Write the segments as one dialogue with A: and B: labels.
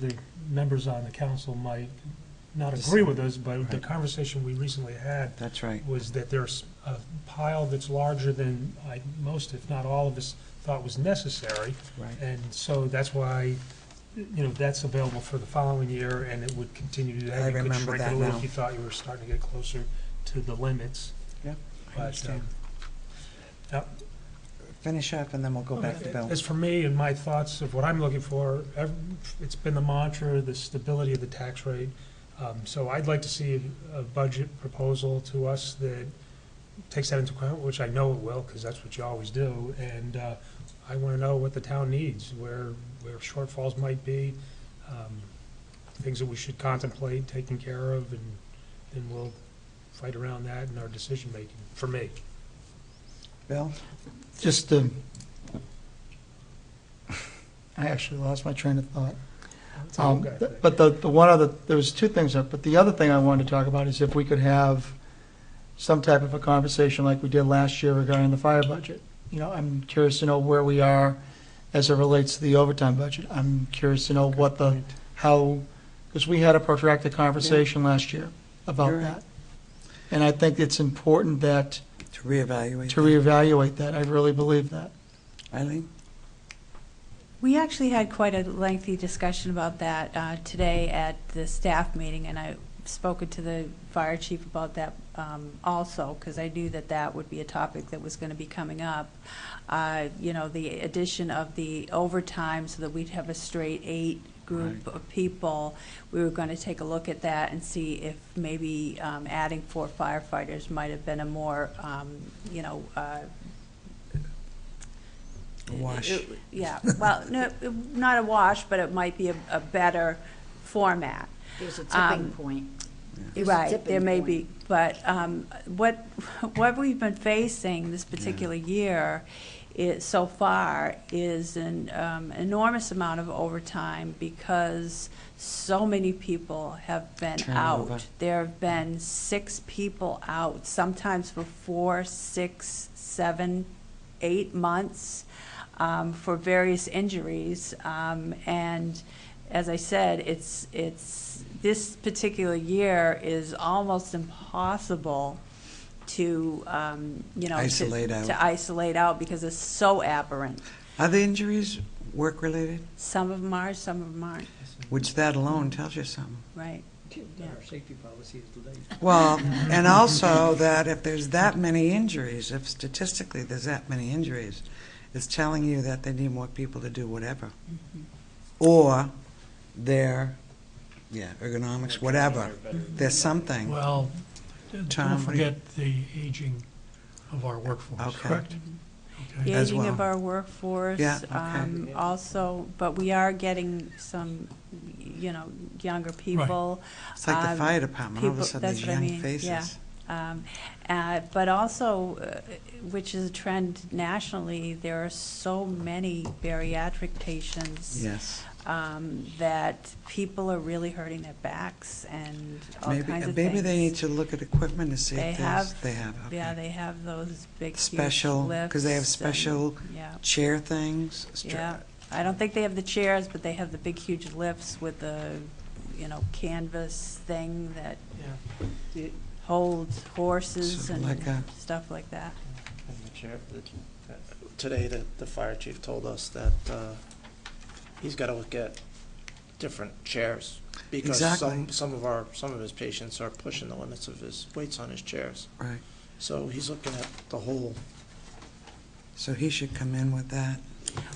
A: the members on the council might not
B: Just-
A: agree with us, but the
B: Right.
A: conversation we recently had
B: That's right.
A: was that there's a pile that's larger than I, most, if not all of us, thought was necessary.
B: Right.
A: And so that's why, you know, that's available for the following year, and it would continue to,
B: I
A: have you could
B: remember
A: shrink it
B: that
A: a little
B: now.
A: if you thought you were starting to get closer to the limits.
B: I
A: But, uh,
B: understand.
A: yep.
B: Finish up and then we'll go back to Bill.
A: Oh, As for me and my thoughts of what I'm looking for, ev- it's been the mantra, the stability of the tax rate. Um, So I'd like to see a budget proposal to us that takes that into account, which I know it will, because that's what you always do. And uh, I want to know what the town needs, where, where shortfalls might be, um, things that we should contemplate taking care of, and then we'll fight around that in our decision-making, for me.
B: Bill?
C: Just, um, I actually lost my train of thought.
A: It's a
C: Um,
A: guy
C: th-
A: thing.
C: But the, the one other, there was two things, up, but the other thing I wanted to talk about is if we could have some type of a conversation like we did last year regarding the fire budget. You know, I'm curious to know where we are as it relates to the overtime budget. I'm curious to know what the, how, because we had a protracted conversation last year about
B: You're right.
C: that. And I think it's important that,
B: To reevaluate.
C: to reevaluate that. I really believe that.
B: Eileen?
D: We actually had quite a lengthy discussion about that uh, today at the staff meeting, and I've spoken to the fire chief about that um, also, because I knew that that would be a topic that was going to be coming up. Uh, You know, the addition of the overtime so that we'd have a straight eight group of people. We were going to take a look at that and see if maybe um, adding four firefighters might have been a more, um, you know, uh,
B: A wash.
D: it- Yeah, well, no, it- not a wash, but it might be a, a better format.
E: There's a
D: Um,
E: tipping point. There's a
D: Right,
E: tipping
D: there may
E: point.
D: be, but um, what, what we've been facing this particular year is, so far, is an um, enormous amount of overtime because so many people have been
B: Turnover.
D: out. There have been six people out, sometimes for four, six, seven, eight months um, for various injuries. Um, And as I said, it's, it's, this particular year is almost impossible to, um, you know. to-
B: Isolate out.
D: To isolate out because it's so aberrant.
B: Are the injuries work-related?
D: Some of them are, some of them aren't,
B: Which that alone tells you something.
D: right?
F: Our safety policy is delayed.
B: Well, and also that if there's that many injuries, if statistically there's that many injuries, it's telling you that they need more people to do whatever. Or their, yeah, ergonomics, whatever. There's something.
G: Well,
B: Tom,
G: don't
B: what do you-
G: forget the aging of our workforce,
B: Okay.
G: correct?
D: The
G: Okay.
B: As
D: aging of
B: well.
D: our workforce.
B: Yeah, okay.
D: um, Also, but we are getting some, you know, younger people.
B: It's like the
D: um,
B: fire department, all of a
D: people-
B: sudden there's
D: that's what I
B: young
D: mean, yeah.
B: faces.
D: Um, uh, But also, uh, which is a trend nationally, there are so many bariatric patients
B: Yes.
D: um, that people are really hurting their backs and all
B: Maybe,
D: kinds of things.
B: maybe they need to look at equipment to see
D: They
B: if there's,
D: have-
B: they have,
D: Yeah,
B: okay.
D: they have those big, huge
B: Special- 'cause they have
D: lifts and-
B: special
D: Yeah,
B: Chair things. str-
D: yeah. I don't think they have the chairs, but they have the big, huge lifts with the, you know, canvas thing that
F: Yeah. It-
D: holds horses
B: Sort of like a-
D: and stuff like that.
F: And the chair, the- today, the, the fire chief told us that, uh, he's gotta look at different chairs. Because some,
B: Exactly.
F: some of our, some of his patients are pushing the limits of his weights on his chairs.
B: Right.
F: So he's looking at the whole,
B: So he should come in with that.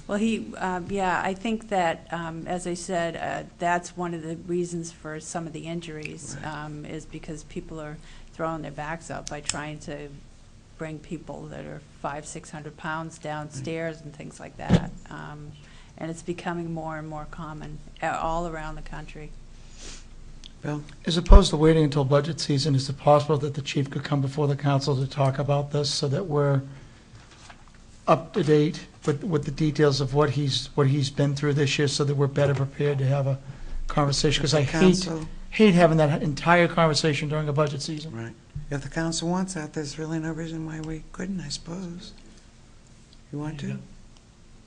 D: Well, he, um, yeah, I think that, um, as I said, uh, that's one of the reasons for some of the injuries,
B: Right.
D: um, is because people are throwing their backs up by trying to bring people that are five, six hundred pounds downstairs and things like that. Um, And it's becoming more and more common uh, all around the country.
B: Bill?
C: As opposed to waiting until budget season, is it possible that the chief could come before the council to talk about this so that we're up to date with, with the details of what he's, what he's been through this year so that we're better prepared to have a conversation? Because I
B: If the
C: hate,
B: council-
C: hate having that entire conversation during a budget season.
B: Right. If the council wants that, there's really no reason why we couldn't, I suppose. You want
G: You've
B: to?
G: got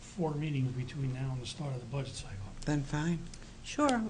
G: Four meetings between now and the start of the budget cycle.
B: Then fine.
D: Sure,